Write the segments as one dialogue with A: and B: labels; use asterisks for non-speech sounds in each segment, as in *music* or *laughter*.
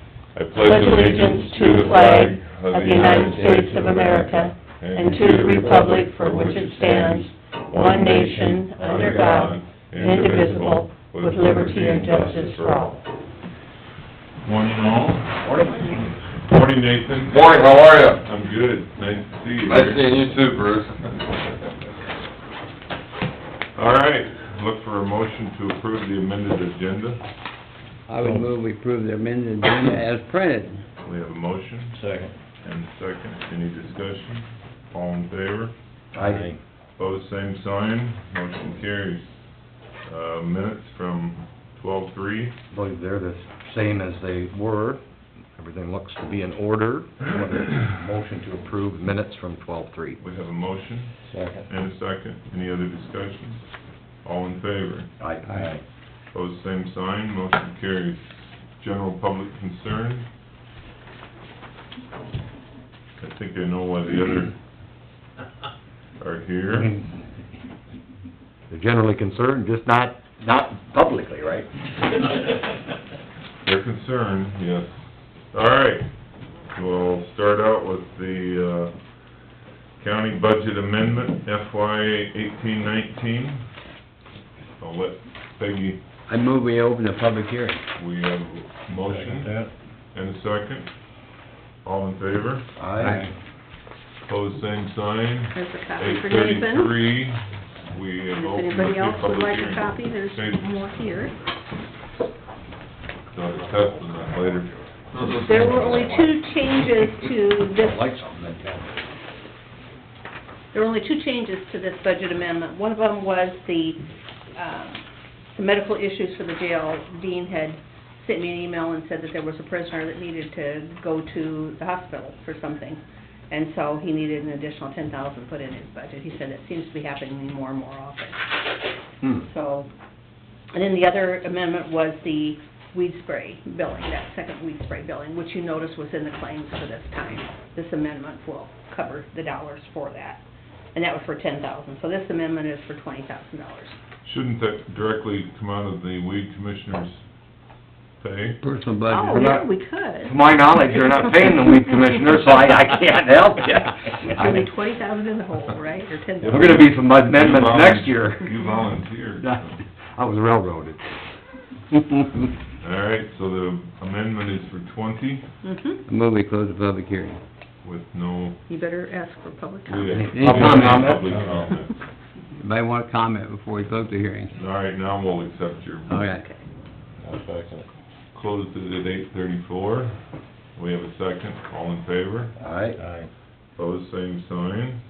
A: I pledge allegiance to the flag of the United States of America and to the republic for which it stands, one nation, under God, indivisible, with liberty and justice for all. Morning all. Morning. Morning, Nathan.
B: Morning, how are you?
A: I'm good, nice to see you.
B: Nice seeing you too, Bruce.
A: All right, look for a motion to approve the amended agenda.
C: I would move we approve the amended agenda as printed.
A: We have a motion
D: Second.
A: and a second, any discussion? All in favor?
D: Aye.
A: Pose same sign, motion carries. Uh, minutes from twelve-three,
E: I believe they're the same as they were. Everything looks to be in order. Motion to approve minutes from twelve-three.
A: we have a motion
D: Second.
A: and a second, any other discussion? All in favor?
E: Aye.
A: Pose same sign, motion carries. General public concern? I think I know why the other are here.
E: They're generally concerned, just not, not publicly, right?
A: They're concerned, yes. All right, we'll start out with the, uh, county budget amendment FY eighteen nineteen. I'll let Peggy,
C: I move we open the public hearing.
A: we have a motion
D: That.
A: and a second. All in favor?
E: Aye.
A: Pose same sign.
F: There's a copy
A: Eight
F: for Nathan.
A: thirty-three, we have
F: If
A: opened up
F: anybody
A: the
F: else would
A: public
F: like
A: hearing.
F: a copy, there's more here.
A: So it's tough on that later.
F: There were only two changes to
E: Don't
F: this,
E: like something, then tell me.
F: there were only two changes to this budget amendment. One of them was the, um, the medical issues for the jail. Dean had sent me an email and said that there was a prisoner that needed to go to the hospital for something. And so he needed an additional ten thousand put in his budget. He said that seems to be happening more and more often.
E: Hmm.
F: So, and then the other amendment was the weed spray billing, that second weed spray billing, which you notice was in the claims for this time. This amendment will cover the dollars for that, and that was for ten thousand. So this amendment is for twenty thousand dollars.
A: Shouldn't that directly come out of the weed commissioner's pay?
C: *laughs* Personal
F: Oh,
C: budget.
F: yeah, we could.
E: To my knowledge, you're not paying the weed commissioner, so I, I can't help *laughs* you.
F: It's gonna be twenty thousand in the hole, right, or ten
E: We're gonna be some
A: You
E: amendments
A: volun-
E: next year. *laughs*
A: You volunteered. so.
E: I was railroaded.
A: All right, so the amendment is for twenty
F: Mm-hmm,
C: I move we close the public hearing.
A: with no...
F: you better ask for public
A: we
F: comment.
A: have-
C: Any comment?
A: Public comment.
C: Anybody want to comment before we close the hearing?
A: All right, now we'll accept your...
C: All right.
D: I'll second it.
A: Closed it at eight thirty-four. We have a second. All in favor?
E: Aye.
D: Aye.
A: Pose same sign.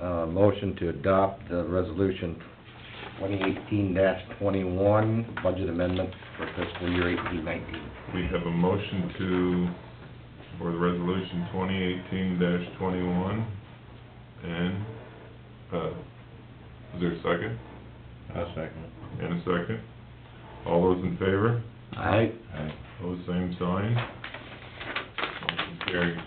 E: Uh, motion to adopt the resolution twenty eighteen twenty-one, budget amendment for fiscal year eighteen nineteen.
A: We have a motion to, for the resolution twenty eighteen twenty-one, and, uh, is there a second?
D: I'll second it.
A: And a second? All those in favor?
E: Aye.
D: Aye.
A: Pose same sign. Motion carries.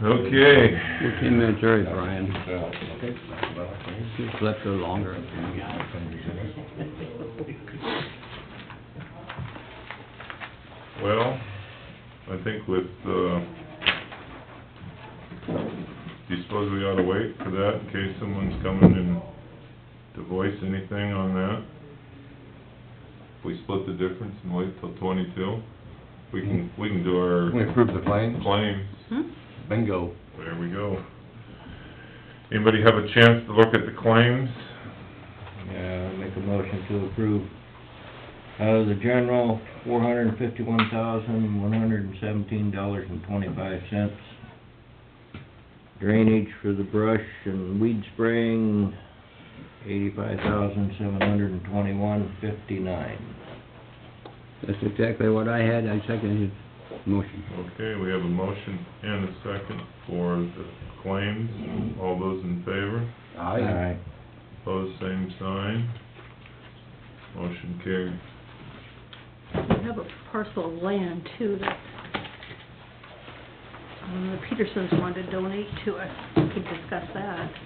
A: Okay.
C: Fifteen minutes early, Brian.
D: So,
E: Okay.
C: You slept so longer.
A: Well, I think with, uh, do you suppose we ought to wait for that in case someone's coming in to voice anything on that? If we split the difference and wait till twenty-two, we can, we can do
E: We
A: our
E: approve the claims?
A: claims.
F: Hmm?
E: Bingo.
A: There we go. Anybody have a chance to look at the claims?
D: yeah, I'll make a motion to approve. Uh, the general, four hundred and fifty-one thousand, one hundred and seventeen dollars and twenty-five cents. Drainage for the brush and weed spraying, eighty-five thousand, seven hundred and twenty-one, fifty-nine.
C: That's exactly what I had. I seconded his motion.
A: Okay, we have a motion and a second for the claims. All those in favor?
E: Aye.
A: Pose same sign. Motion carried.
F: We have a parcel of land too that, uh, um, the Petersons wanted to donate to us. We could discuss that.